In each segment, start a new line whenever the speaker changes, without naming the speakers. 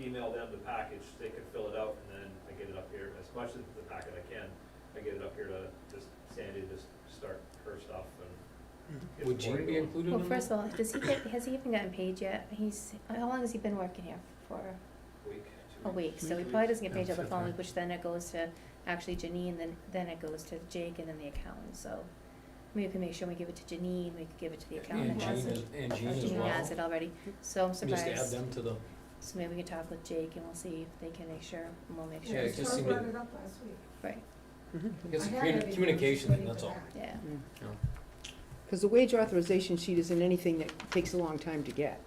email them the package, they can fill it out, and then I get it up here, as much as the packet I can, I get it up here to just Sandy, to just start her stuff and. get the
Would you
party
be
going.
included
Well,
on
first
that?
of all, does he get, has he even gotten paid yet? He's, how long has he been working here? For
Week, two
a week, so he
weeks.
probably doesn't get paid till the
That's
following,
okay.
week, which then it goes to actually Janine, then, then it goes to Jake and then the accountant, so. Maybe we can make sure we give it to Janine, we could give it to the
And
accountant.
Jean,
has
is-
it.
and Jean
Jean
as
Janine has it
well.
already, so I'm surprised.
Just add them to the,
So maybe we can talk with Jake and we'll see if they can make sure, and we'll make
Yeah,
sure.
it
it's
just
Charles
seemed
brought
to-
it up last week.
Right,
I guess
I had
communi-
everything,
communication,
just
that's all.
waiting for
yeah,
Yeah.
you know.
Because the wage authorization sheet isn't anything that takes a long time to get,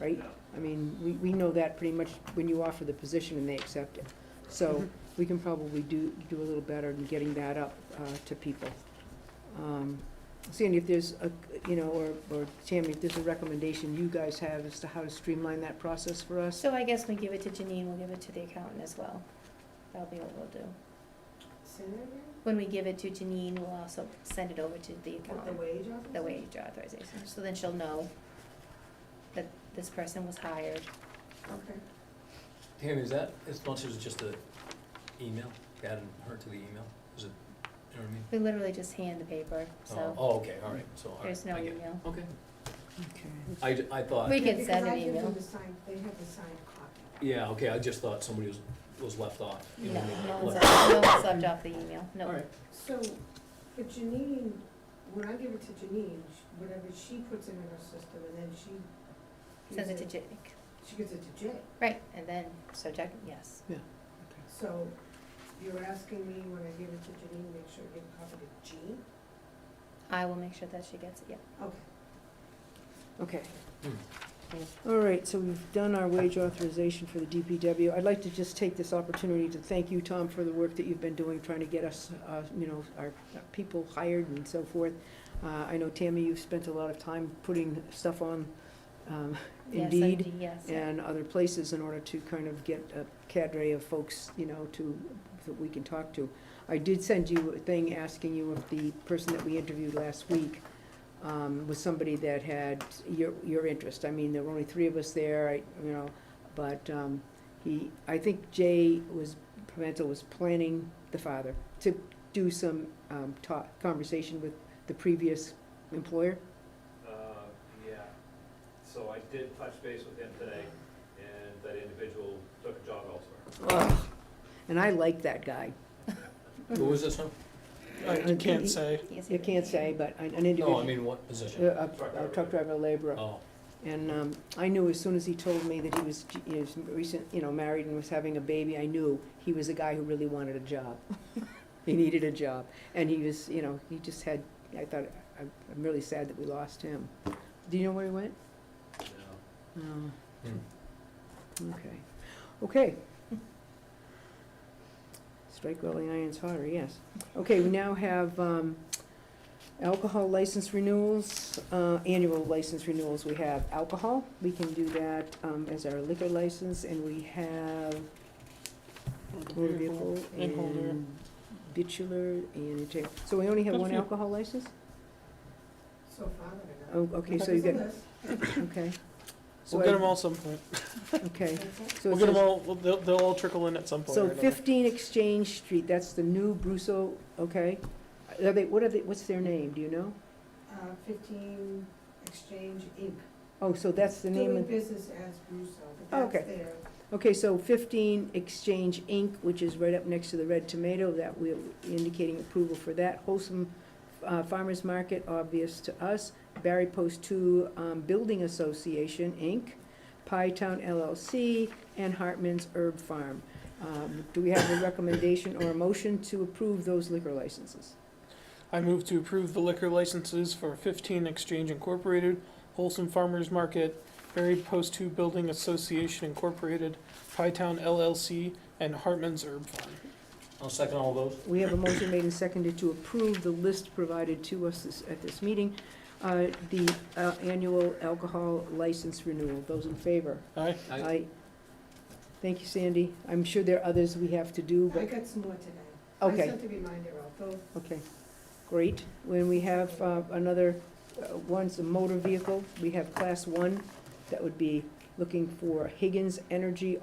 right?
No.
I mean, we, we know that pretty much when you offer the position and they accept it. So we can probably do, do a little better in getting that up uh, to people. Um, Sandy, if there's a, you know, or, or Tammy, if there's a recommendation you guys have as to how to streamline that process for us?
so I guess we give it to Janine, we'll give it to the accountant as well, that'll be what we'll do.
Say that again?
When we give it to Janine, we'll also send it over to the
What, the
accountant,
wage officer?
the wage authorization, so then she'll know that this person was hired.
Okay.
Tammy, is that as much as just a email, adding her to the email? Is it, you know what I mean?
We literally just hand the paper,
Oh,
so
Oh, okay, all right, so, all right.
there's no
I get it.
email.
Okay,
Okay.
I, ju- I thought,
We can
Because
send
I
an
give them
email.
the signed- they have the signed copy.
yeah, okay, I just thought somebody was, was left off. you know
No,
what I mean?
no
Like,
one's,
left-
no one's left off the email, no.
All right,
So, but Janine, when I give it to Janine, sh- whatever she puts it in her system and then she. gives
Sends it to Jake,
She gives it to Jay.
right, and then, so Jack, yes,
So you're asking me when I give it to Janine, make sure I give a copy to Jean?
I will make sure that she gets it, yeah.
Okay.
Okay. All right, so we've done our wage authorization for the DPW. I'd like to just take this opportunity to thank you, Tom, for the work that you've been doing, trying to get us, uh, you know, our people hired and so forth. Uh, I know, Tammy, you've spent a lot of time putting stuff on um,
Yes,
Indeed,
Indeed, yes.
and other places in order to kind of get a cadre of folks, you know, to, that we can talk to. I did send you a thing asking you if the person that we interviewed last week um, was somebody that had your, your interest. I mean, there were only three of us there, I, you know, but um, he, I think Jay was, Pimental was planning, the father, to do some um, talk, conversation with the previous employer.
Uh, yeah, so I did touch base with him today, and that individual took a job elsewhere.
Ugh. And I like that guy.
who was this one?
I can't
say.
Yes,
You can't say, but an an individual.
No, I mean, what
A,
position?
a a truck driver laborer.
Oh,
And um, I knew as soon as he told me that he was, he was recent, you know, married and was having a baby, I knew he was a guy who really wanted a job. He needed a job. And he was, you know, he just had, I thought, I'm I'm really sad that we lost him. Do you know where he went?
No.
No.
Hmm.
Oh, Okay, okay. Strike while the iron's hotter, yes. Okay, we now have um, alcohol license renewals, uh, annual license renewals. We have alcohol, we can do that um, as our liquor license, and we have motor vehicle
And holder.
and bitular and, ta- so we only have
Got a
one
few.
alcohol license?
So far, I don't know.
Oh, okay, so you
There's a
get,
list.
okay. So
We'll get
I-
them all some point.
Okay.
That's it.
So it
We'll get them
says-
all, well, they'll, they'll all trickle in at some point.
So
or another.
fifteen Exchange Street, that's the new Brusso, okay? Are they, what are they, what's their name, do you know?
Uh, fifteen Exchange Inc.
Oh, so that's the name
Doing
of,
business as Brusso, but that's
Okay.
their
okay, so fifteen Exchange Inc., which is right up next to the Red Tomato, that we're indicating approval for that. Wholesome uh, Farmers Market, obvious to us. Barry Post Two um, Building Association, Inc., Pie Town LLC, and Hartman's Herb Farm. Um, Do we have a recommendation or a motion to approve those liquor licenses?
I move to approve the liquor licenses for fifteen Exchange Incorporated, Wholesome Farmers Market, Buried Post Two Building Association Incorporated, Pie Town LLC, and Hartman's Herb Farm.
I'll second all those.
We have a motion made and seconded to approve the list provided to us this- at this meeting, uh, the uh, annual alcohol license renewal. Those in favor?
Aye.
Aye.
Thank you, Sandy. I'm sure there are others we have to do,
I
but,
got some more today. I
okay,
sent a reminder out, though.
okay, great. When we have uh, another, uh, one's a motor vehicle, we have Class 1, that would be looking for Higgins Energy